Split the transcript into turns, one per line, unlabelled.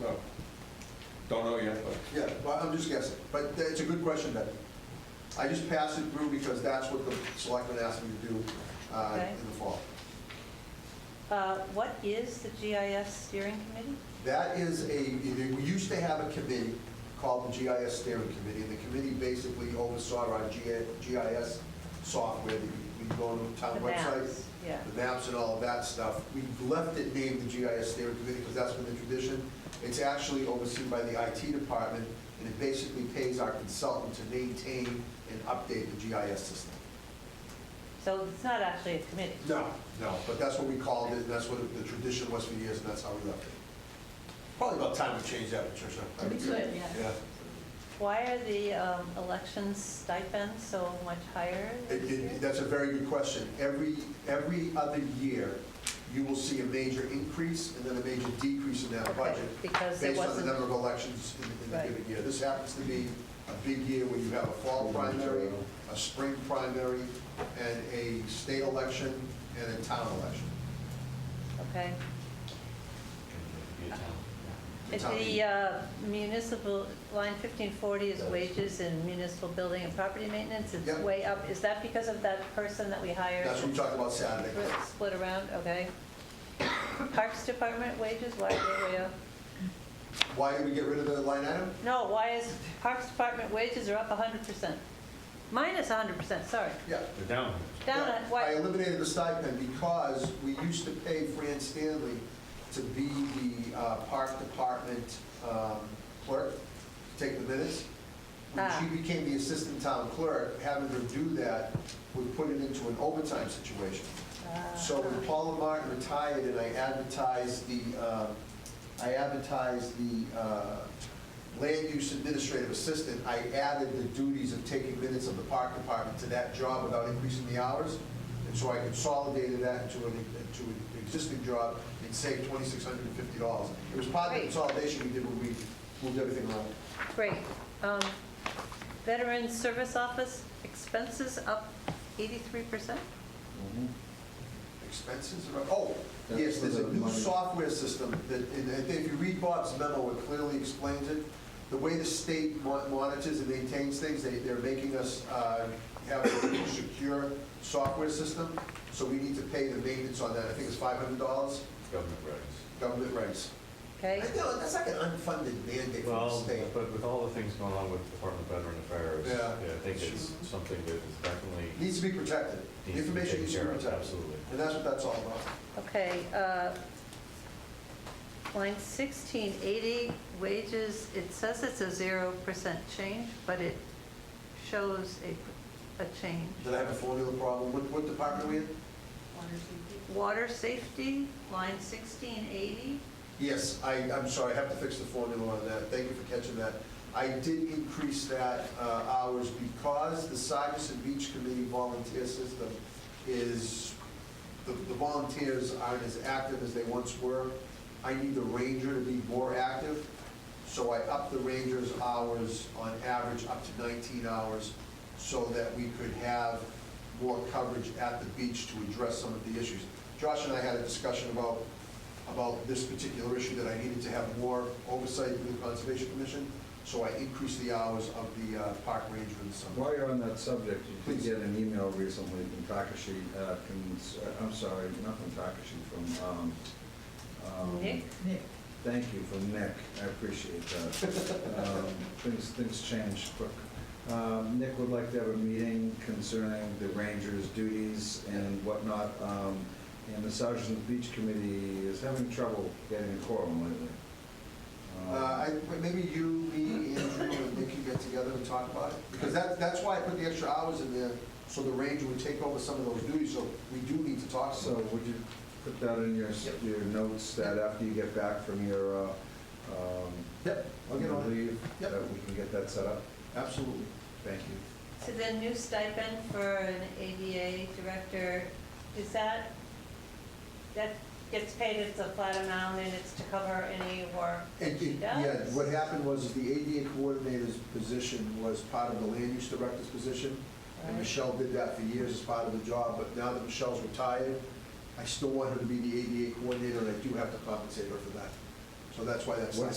No, don't know yet, but
Yeah, well, I'm just guessing, but it's a good question, Becky. I just passed it through because that's what the selectmen asked me to do uh,
Okay.
in the fall.
Uh, What is the GIS steering committee?
That is a, we used to have a committee called the GIS Steering Committee, and the committee basically oversaw our GIS software, that we go to town
The
Uh, website,
maps, yeah.
the maps and all of that stuff. We've left it named the GIS Steering Committee because that's been the tradition. It's actually overseen by the IT department, and it basically pays our consultant to maintain and update the GIS system.
So it's not actually a committee.
No, no, but that's what we called it, and that's what the tradition was for years, and that's how we left it. Probably about time we changed that, Patricia.
We could, yeah.
Yeah,
Why are the um, election stipends so much higher
It-
this
it-
year?
that's a very good question. Every, every other year, you will see a major increase and then a major decrease in that budget
Because there
based on the
wasn't,
number of elections in- in the
Right.
given year. This happens to be a big year where you have a fall primary, a spring primary, and a state election, and a town election.
okay. If
Town
The
meeting.
uh, municipal, line 1540 is wages in municipal building and property maintenance. It's
Yep.
way up. Is that because of that person that we hired?
That's what we talked about Saturday.
Split- Split around, okay. Parks Department wages, why are they way up?
Why did we get rid of the line item?
No, why is Parks Department wages are up 100%? Minus 100%, sorry.
Yeah.
They're down.
Down at,
I
why,
eliminated the stipend because we used to pay Fran Stanley to be the uh, park department um, clerk, take the minutes. When
Ah.
she became the assistant town clerk, having her do that would put it into an overtime situation.
Ah.
So when Paula Martin retired and I advertised the, uh, I advertised the uh, land use administrative assistant, I added the duties of taking minutes of the park department to that job without increasing the hours. And so I consolidated that into an, into an existing job and saved twenty-six hundred and fifty dollars. It was part of the
Great.
consolidation we did when we moved everything around.
great. Um, Veteran Service Office expenses up 83%?
Expenses are, oh,
That's
yes,
for
there's a
the
new
money.
software system that, and I think if you read Bob's memo, it clearly explains it. The way the state mon- monitors and maintains things, they, they're making us uh, have a secure software system, so we need to pay the maintenance on that. I think it's five hundred dollars,
Government regs.
government rates.
Okay?
No, that's like an unfunded mandate from the
Well,
state.
but with all the things going on with Department of Veteran Affairs,
Yeah.
yeah, I think it's something that is definitely
Needs to be protected. The
needs to be
Information
taken
needs to
care
be
of,
protected.
absolutely.
And that's what that's all about.
Okay. uh, Line 1680, wages, it says it's a 0% change, but it shows a, a change.
Did I have a formula problem? What, what department are we in?
Water Safety, line 1680,
Yes, I, I'm sorry, I have to fix the formula on that. Thank you for catching that. I did increase that uh, hours because the Cyrus and Beach Committee volunteer system is, the the volunteers aren't as active as they once were. I need the ranger to be more active, so I upped the ranger's hours on average up to 19 hours so that we could have more coverage at the beach to address some of the issues. Josh and I had a discussion about about this particular issue, that I needed to have more oversight with the Conservation Commission, so I increased the hours of the uh, park ranger in the summer.
While you're on that subject, you did
Please.
get an email recently from Takashi, uh, cons- uh, I'm sorry, not from Takashi, from, um, um,
Nick?
Nick,
Thank you, from Nick, I appreciate that. Um, Things, things change quick. Um, Nick would like to have a meeting concerning the ranger's duties and whatnot, um, and the Sergeant's Beach Committee is having trouble getting a quorum lately.
Uh,
Um,
I- Maybe you, me, Andrew, and Nick can get together and talk about it, because that, that's why I put the extra hours in there, so the ranger would take over some of those duties, so we do need to talk
So
some.
would you put that in your,
Yep.
your notes that after you get back from your, uh, um,
Yep, I'll get on it,
leave,
Yep.
that we can get that set up?
absolutely.
Thank you.
So the new stipend for an ADA director, is that, that gets paid, it's a flat amount, and it's to cover any work that
And
she
it- Yeah,
does?
what happened was, is the ADA coordinator's position was part of the land use director's position, And
Right.
Michelle did that for years as part of the job, but now that Michelle's retired, I still want her to be the ADA coordinator, and I do have to compensate her for that. So that's why that's.
What